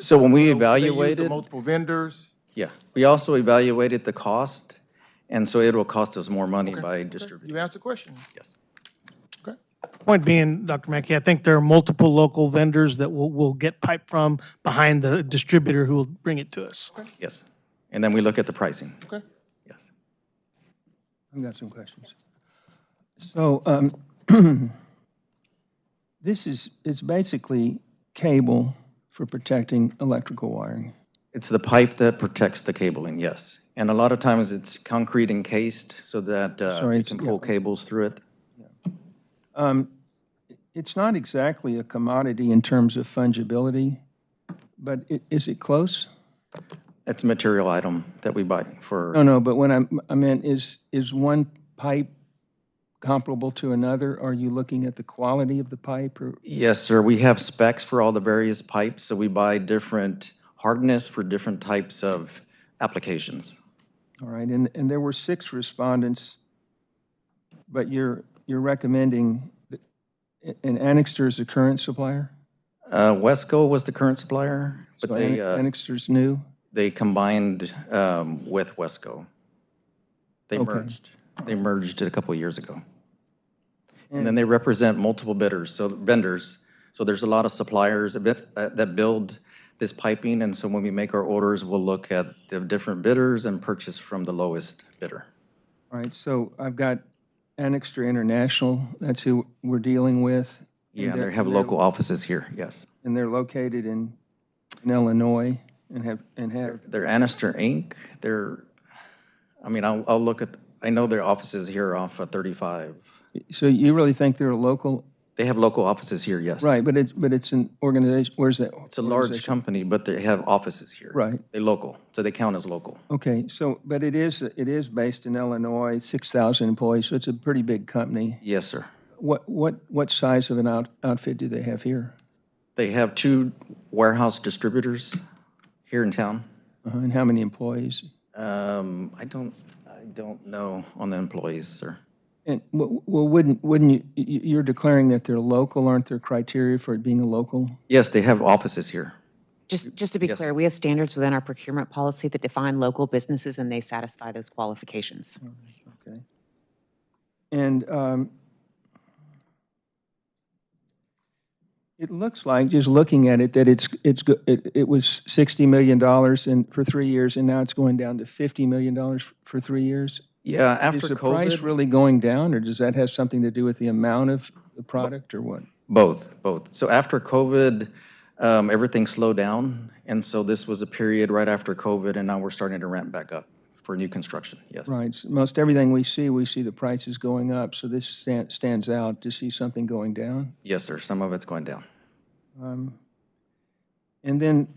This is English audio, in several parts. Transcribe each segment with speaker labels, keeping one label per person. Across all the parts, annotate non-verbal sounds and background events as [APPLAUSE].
Speaker 1: So when we
Speaker 2: They used the
Speaker 1: evaluated,
Speaker 2: Multiple vendors.
Speaker 1: yeah, we also evaluated the cost, and so it will cost us more money by distributing,
Speaker 2: You asked a question.
Speaker 1: yes.
Speaker 2: Okay.
Speaker 3: Point being, Dr. Mackey, I think there are multiple local vendors that will, will get pipe from behind the distributor who will bring it to us.
Speaker 1: Yes. And then we look at the pricing.
Speaker 2: Okay.
Speaker 1: Yes.
Speaker 4: I've got some questions. So um, [CLEARS THROAT] this is, it's basically cable for protecting electrical wiring.
Speaker 1: It's the pipe that protects the cabling, yes. And a lot of times it's concrete encased so that uh,
Speaker 4: Sorry,
Speaker 1: you
Speaker 4: it's-
Speaker 1: can pull cables through it.
Speaker 4: It's not exactly a commodity in terms of fungibility, but i- is it close?
Speaker 1: It's a material item that we buy for,
Speaker 4: No, no, but when I'm, I meant, is, is one pipe comparable to another? Are you looking at the quality of the pipe or?
Speaker 1: yes, sir, we have specs for all the various pipes, so we buy different hardness for different types of applications.
Speaker 4: All right, and, and there were six respondents, but you're, you're recommending that- and Annixter is the current supplier?
Speaker 1: Uh, Wesco was the current supplier, but
Speaker 4: So
Speaker 1: they,
Speaker 4: Anni-
Speaker 1: uh,
Speaker 4: Annixter's new?
Speaker 1: they combined um, with Wesco. They merged. They merged a couple of years ago. And then they represent multiple bidders, so vendors. So there's a lot of suppliers a bit, uh, that build this piping. And so when we make our orders, we'll look at the different bidders and purchase from the lowest bidder.
Speaker 4: All right, so I've got Annixter International, that's who we're dealing with,
Speaker 1: Yeah, they have local offices here, yes.
Speaker 4: and they're located in, in Illinois and have, and have,
Speaker 1: They're Annister Inc. They're, I mean, I'll, I'll look at, I know their offices here off of 35.
Speaker 4: so you really think they're a local?
Speaker 1: They have local offices here, yes.
Speaker 4: Right, but it's, but it's an organization, where's that?
Speaker 1: It's a large company, but they have offices here.
Speaker 4: Right.
Speaker 1: They're local, so they count as local.
Speaker 4: Okay, so, but it is, it is based in Illinois, 6,000 employees, so it's a pretty big company.
Speaker 1: Yes, sir.
Speaker 4: What, what, what size of an out outfit do they have here?
Speaker 1: They have two warehouse distributors here in town.
Speaker 4: Uh-huh, And how many employees?
Speaker 1: Um, I don't, I don't know on the employees, sir.
Speaker 4: And, w- well, wouldn't, wouldn't you, you- you're declaring that they're local, aren't there criteria for it being a local?
Speaker 1: Yes, they have offices here.
Speaker 5: Just, just to be clear, we have standards within our procurement policy that define local businesses, and they satisfy those qualifications.
Speaker 4: Okay. And um, it looks like, just looking at it, that it's, it's, go- it it was $60 million and, for three years, and now it's going down to $50 million f- for three years?
Speaker 1: Yeah,
Speaker 4: Is
Speaker 1: after
Speaker 4: the price
Speaker 1: COVID,
Speaker 4: really going down, or does that have something to do with the amount of the product, or what?
Speaker 1: both, both. So after COVID, um, everything slowed down. And so this was a period right after COVID, and now we're starting to ramp back up for new construction, yes.
Speaker 4: Right, so most everything we see, we see the prices going up, so this stan- stands out to see something going down.
Speaker 1: Yes, sir, some of it's going down.
Speaker 4: And then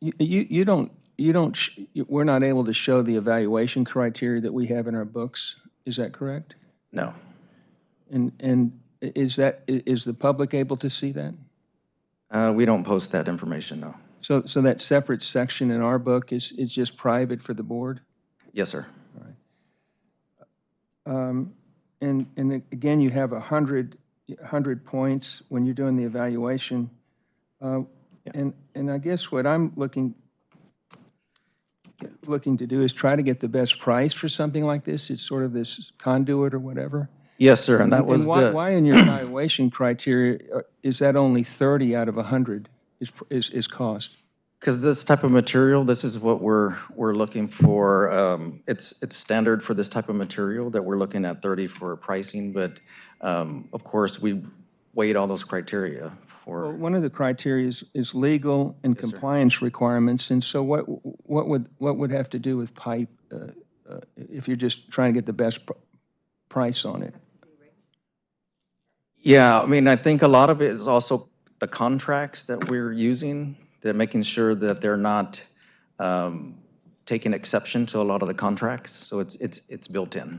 Speaker 4: you, you you don't, you don't, sh- you- we're not able to show the evaluation criteria that we have in our books, is that correct?
Speaker 1: No,
Speaker 4: And, and i- is that, i- is the public able to see that?
Speaker 1: Uh, we don't post that information, no.
Speaker 4: So, so that separate section in our book is, is just private for the board?
Speaker 1: Yes, sir.
Speaker 4: And, and again, you have 100, 100 points when you're doing the evaluation. Uh, And, and I guess what I'm looking, looking to do is try to get the best price for something like this. It's sort of this conduit or whatever.
Speaker 1: Yes, sir, and that was
Speaker 4: And why,
Speaker 1: the,
Speaker 4: why in your evaluation criteria, uh, is that only 30 out of 100 is, pr- is, is cost?
Speaker 1: because this type of material, this is what we're, we're looking for. um, It's, it's standard for this type of material that we're looking at 30 for pricing, but um, of course, we weighed all those criteria
Speaker 4: Well,
Speaker 1: for,
Speaker 4: One of the criteria is, is legal and compliance requirements, and so what, what would, what would have to do with pipe uh, uh, if you're just trying to get the best pr- price on it?
Speaker 1: yeah, I mean, I think a lot of it is also the contracts that we're using, that making sure that they're not um, taking exception to a lot of the contracts, so it's, it's, it's built in.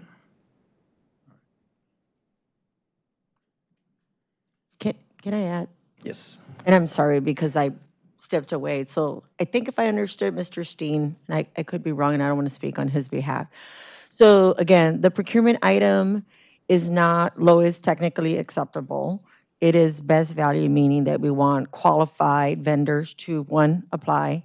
Speaker 6: Can, can I add?
Speaker 1: Yes.
Speaker 6: And I'm sorry because I stepped away. So I think if I understood Mr. Steen, and I, I could be wrong and I don't want to speak on his behalf. So again, the procurement item is not lowest technically acceptable. It is best value, meaning that we want qualified vendors to, one, apply,